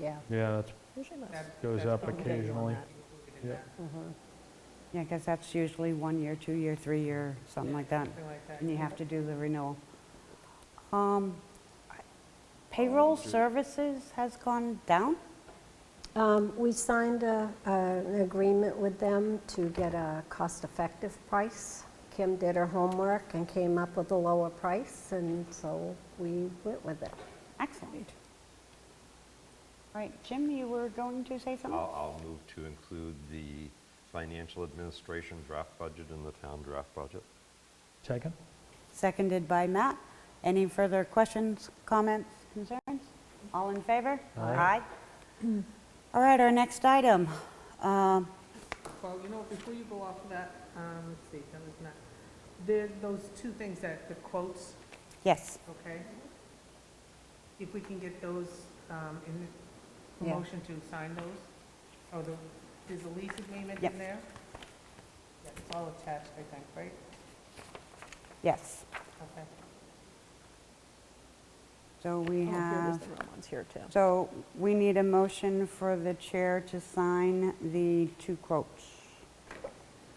yeah. Yeah, that's, Usually most. That- Goes that's up probably occasionally. not included in Yeah. that, Yeah, because that's usually one year, two year, three year, something like that. Something like that. And you have to do the renewal. Um, Payroll services has gone down? Um, We signed a- an agreement with them to get a cost-effective price. Kim did her homework and came up with a lower price, and so we went with it. Excellent. Right, Jim, you were going to say something? I'll, I'll move to include the financial administration draft budget in the town draft budget. second? Seconded by Matt. Any further questions, comments, concerns? All in favor? Aye. All right, our next item. Um, Well, you know, before you go off of that, um, let's see, that was not, there, those two things that, the quotes, Yes, okay? If we can get those, um, in, the- Yeah. motion to sign those, oh, the, there's a lease agreement Yep. in there? Yeah, It's all attached, I think, right? yes. Okay. So we Oh, here it is, have, the wrong one's here too. so we need a motion for the chair to sign the two quotes.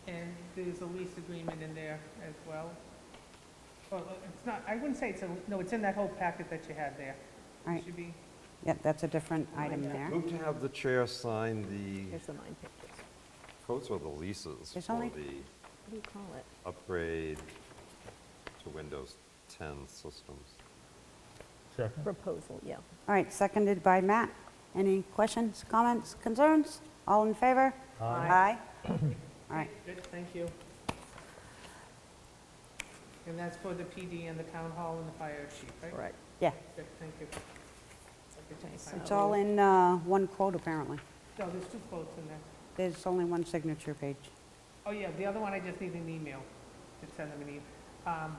And there's a lease agreement in there as well. Well, it's not, I wouldn't say it's a, no, it's in that whole packet that you had there. All right, Should be, yeah, that's a different item there. Move to have the chair sign the Here's the nine pages. quotes or the leases There's for only- the What do you call it? upgrade to Windows 10 systems. Second. Proposal, yeah. All right, seconded by Matt. Any questions, comments, concerns? All in favor? Aye. All right, good, thank you. And that's for the PD and the town hall and the fire chief, right? Correct. yeah. Good, thank you. Okay, so- It's all in uh, one quote, apparently. No, there's two quotes in there. There's only one signature page. Oh, yeah, the other one, I just need an email to send them an email. Um,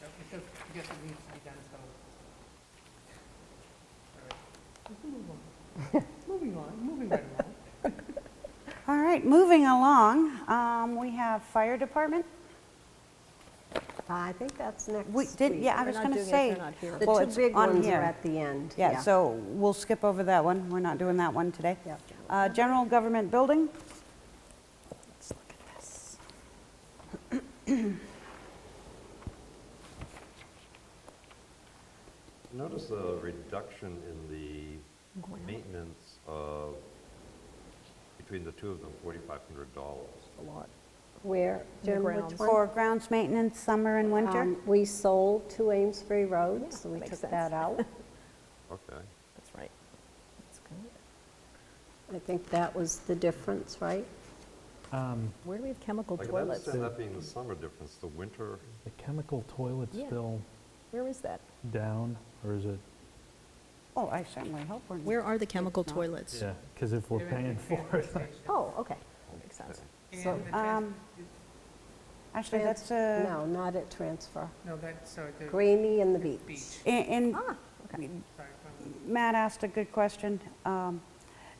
so It just, it just needs to be done, so. All right. Let's move on. Moving on, moving right along. All right, moving along, um, we have fire department. I think that's next We week. did, yeah, I We're was not going to doing it if say. they're not here. The well, two it's big on ones are here. at the end. Yeah, so we'll skip over that one. We're not doing that one today. Yep. Uh, General government building, Let's look at this. Notice a reduction in the maintenance of, between the two of them, $4,500. A lot. Where, Jim, which grounds. one? for grounds maintenance, summer and winter. Um, We sold to Amesbury Road, so we makes took sense. that out. Okay. That's right. That's good. I think that was the difference, right? Um, Where do we have chemical Like, I toilets? understand that being the summer difference, the winter, The chemical toilet's Yeah. still Where is that? down, or is it? Oh, I certainly hope we're. Where are the chemical not. toilets? Yeah, because if we're They're at the paying for transfer it, station. Oh, okay. Makes sense. And So, the trans- um, Actually, that's Trans- uh, No, not at transfer. No, that's, sorry, the Greenie and the beach. beach. in- in, Ah, okay. Sorry, from- Matt asked a good question. Um,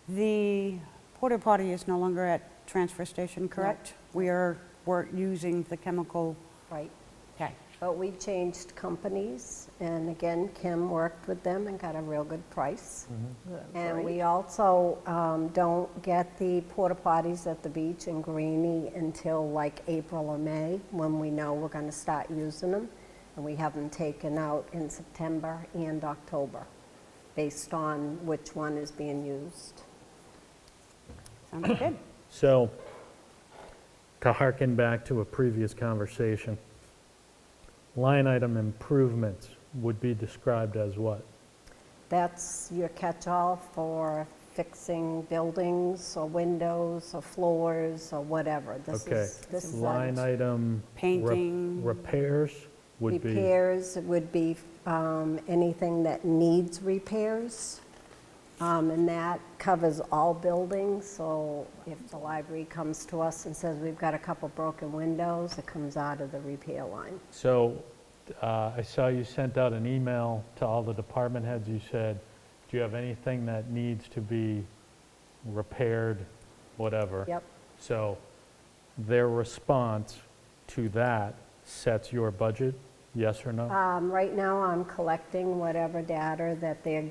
The porta potty is no longer at transfer station, correct? We are, we're using the chemical, Right. okay. But we changed companies, and again, Kim worked with them and got a real good price. That's And right. we also um, don't get the porta potties at the beach in Greenie until like April or May, when we know we're going to start using them. And we have them taken out in September and October, based on which one is being used. Sounds good. so, to harken back to a previous conversation, line item improvements would be described as what? That's your catch-all for fixing buildings or windows or floors or whatever. This Okay. is, this is. Line like item. rep- Painting. Repairs would be. Repairs It would be um, anything that needs repairs. Um, And that covers all buildings, so if the library comes to us and says, we've got a couple broken windows, it comes out of the repair line. So uh, I saw you sent out an email to all the department heads. You said, do you have anything that needs to be repaired, whatever? Yep. So their response to that sets your budget, yes or no? Um, Right now, I'm collecting whatever data that they're